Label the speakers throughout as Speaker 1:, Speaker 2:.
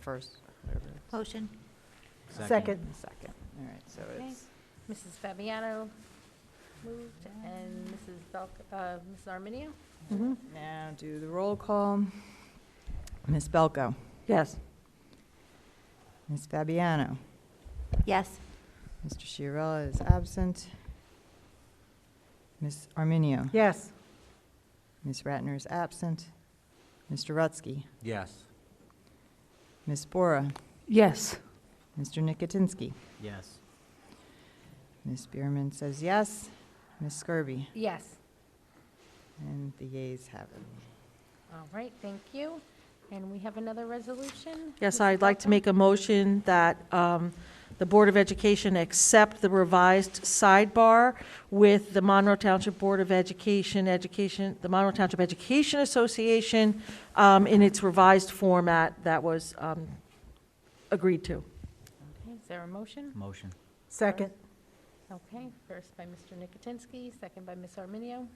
Speaker 1: first, whatever. it is.
Speaker 2: Motion,
Speaker 3: Second.
Speaker 1: Second, all right, so
Speaker 4: Okay.
Speaker 1: it's,
Speaker 4: Mrs. Fabiano moved, and Mrs. Belk, uh, Mrs. Arminio?
Speaker 3: Mhm.
Speaker 1: now do the roll call. Ms. Belko,
Speaker 3: Yes.
Speaker 1: Ms. Fabiano,
Speaker 2: yes.
Speaker 1: Mr. Chiarella is absent. Ms. Arminio,
Speaker 3: Yes.
Speaker 1: Ms. Ratner is absent. Mr. Rutsky,
Speaker 5: Yes.
Speaker 1: Ms. Bora,
Speaker 3: Yes.
Speaker 1: Mr. Nicotinsky.
Speaker 5: Yes.
Speaker 1: Ms. Bierman says yes, Ms. Skirby,
Speaker 4: Yes.
Speaker 1: and the yeas have it.
Speaker 4: All right, thank you. And we have another resolution?
Speaker 3: Yes,
Speaker 4: Mrs.
Speaker 3: I'd like to make a motion that um, the Board of Education accept the revised sidebar with the Monroe Township Board of Education, Education, the Monroe Township Education Association um, in its revised format that was um, agreed to.
Speaker 4: Okay, Is there a motion?
Speaker 5: Motion.
Speaker 4: Second. Okay, first by Mr. Nicotinsky, second by Ms. Arminio.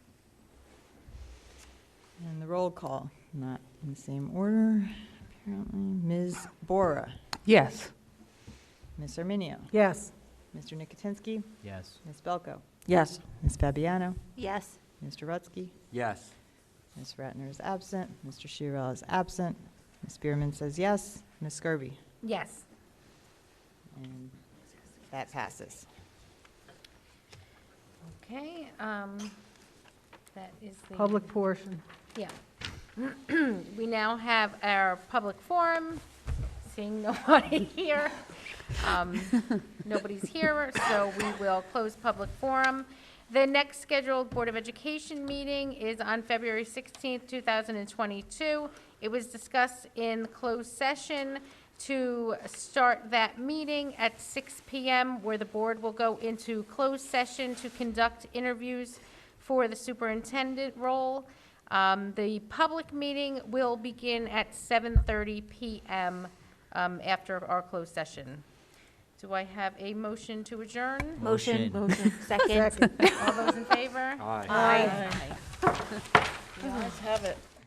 Speaker 1: And the roll call, not in the same order, apparently. Ms. Bora,
Speaker 3: Yes.
Speaker 1: Ms. Arminio,
Speaker 3: Yes.
Speaker 1: Mr. Nicotinsky,
Speaker 5: Yes.
Speaker 1: Ms. Belko,
Speaker 3: Yes.
Speaker 1: Ms. Fabiano,
Speaker 2: Yes.
Speaker 1: Mr. Rutsky,
Speaker 5: Yes.
Speaker 1: Ms. Ratner is absent, Mr. Shirel is absent, Ms. Bierman says yes, Ms. Skirby,
Speaker 4: Yes.
Speaker 1: and that passes.
Speaker 4: Okay, um, that is the.
Speaker 6: Public portion.
Speaker 4: Yeah. We now have our public forum, seeing nobody here. Um, Nobody's here, so we will close public forum. The next scheduled Board of Education meeting is on February 16th, 2022. It was discussed in closed session to start that meeting at 6 PM, where the board will go into closed session to conduct interviews for the superintendent role. Um, The public meeting will begin at 7:30 PM um, after our closed session. Do I have a motion to adjourn?
Speaker 2: Motion,
Speaker 5: Motion.
Speaker 2: second.
Speaker 4: All those in favor?
Speaker 5: Aye.
Speaker 4: Aye.
Speaker 3: Let's have it.